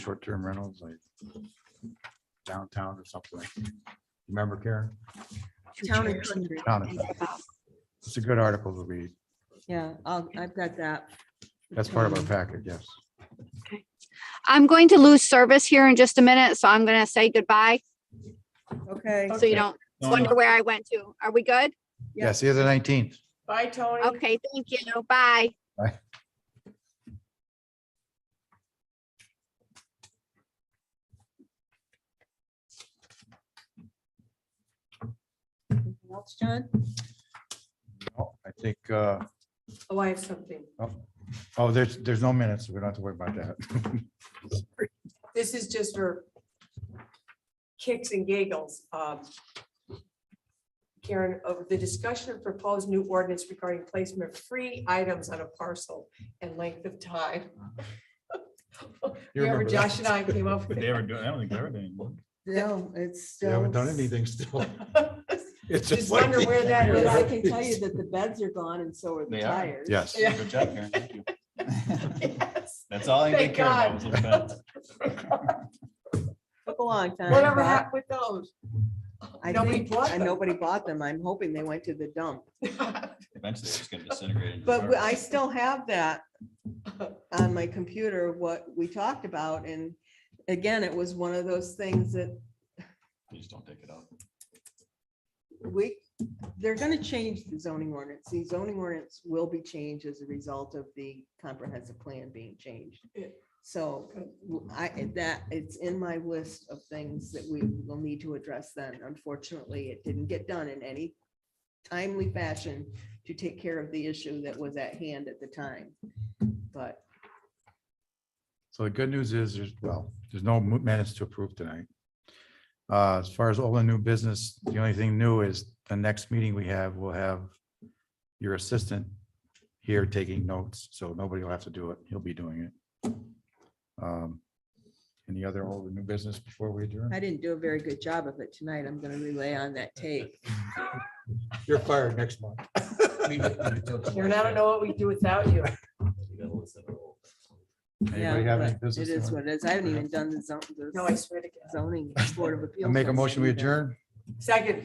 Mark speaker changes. Speaker 1: short-term rentals like downtown or something. Remember Karen?
Speaker 2: Town and country.
Speaker 1: Town and- It's a good article to read.
Speaker 2: Yeah, I'll, I've got that.
Speaker 1: That's part of our package, yes.
Speaker 3: I'm going to lose service here in just a minute, so I'm gonna say goodbye,
Speaker 2: Okay.
Speaker 3: so you don't wonder where I went to. Are we good?
Speaker 1: Yeah, see you the nineteenth.
Speaker 4: Bye, Tony.
Speaker 3: Okay, thank you. Bye.
Speaker 2: Anything else, John?
Speaker 1: I think, uh,
Speaker 4: Oh, I have something.
Speaker 1: oh, there's, there's no minutes. so We don't have to worry about that.
Speaker 4: This is just for kicks and giggles. Um, Karen, of the discussion of proposed new ordinance regarding placement of free items on a parcel and length of time.
Speaker 1: You
Speaker 4: Remember
Speaker 1: remember that.
Speaker 4: Josh and I came up
Speaker 5: But
Speaker 4: with
Speaker 5: they ever do, I don't think they ever do anymore.
Speaker 2: No, it's
Speaker 1: We
Speaker 2: still.
Speaker 1: haven't done anything still. It's
Speaker 4: Just wonder where that
Speaker 2: But I can
Speaker 1: is.
Speaker 2: tell you that the beds are gone and so are the
Speaker 5: They are.
Speaker 2: tires.
Speaker 1: Yes.
Speaker 4: Yeah.
Speaker 5: Good job, Karen. Thank you.
Speaker 4: Yes.
Speaker 5: That's all I
Speaker 4: Thank
Speaker 5: did care about was
Speaker 4: God.
Speaker 5: the fence.
Speaker 2: Took a long time.
Speaker 4: Whatever
Speaker 2: but
Speaker 4: happened with those?
Speaker 2: I
Speaker 4: Nobody
Speaker 2: think-
Speaker 4: bought
Speaker 2: and
Speaker 4: them.
Speaker 2: Nobody bought them. I'm hoping they went to the dump.
Speaker 5: Eventually it's gonna disintegrate. into
Speaker 2: But we- I
Speaker 5: garbage.
Speaker 2: still have that on my computer, what we talked about. And again, it was one of those things that
Speaker 5: You just don't take it out.
Speaker 2: we, they're gonna change the zoning ordinance. The zoning ordinance will be changed as a result of the comprehensive plan being changed.
Speaker 4: Yeah.
Speaker 2: So w- I, that, it's in my list of things that we will need to address then. Unfortunately, it didn't get done in any timely fashion to take care of the issue that was at hand at the time. But
Speaker 1: So the good news is, there's, well, there's no mo- minutes to approve tonight. Uh, As far as all the new business, the only thing new is the next meeting we have, we'll have your assistant here taking notes, so nobody will have to do it. He'll be doing it. Um, Any other old or new business before we adjourn?
Speaker 2: I didn't do a very good job of it tonight. I'm gonna relay on that tape.
Speaker 1: You're fired next month.
Speaker 4: Karen, I don't know what we'd do without you.
Speaker 2: Yeah,
Speaker 1: Anybody have any
Speaker 2: but It
Speaker 1: business?
Speaker 2: is
Speaker 1: to-
Speaker 2: what it is. I haven't even done the zone, the
Speaker 4: No, I swear to God.
Speaker 2: zoning board of appeals.
Speaker 1: I Make a motion, we
Speaker 2: yet.
Speaker 1: adjourn?
Speaker 4: Second.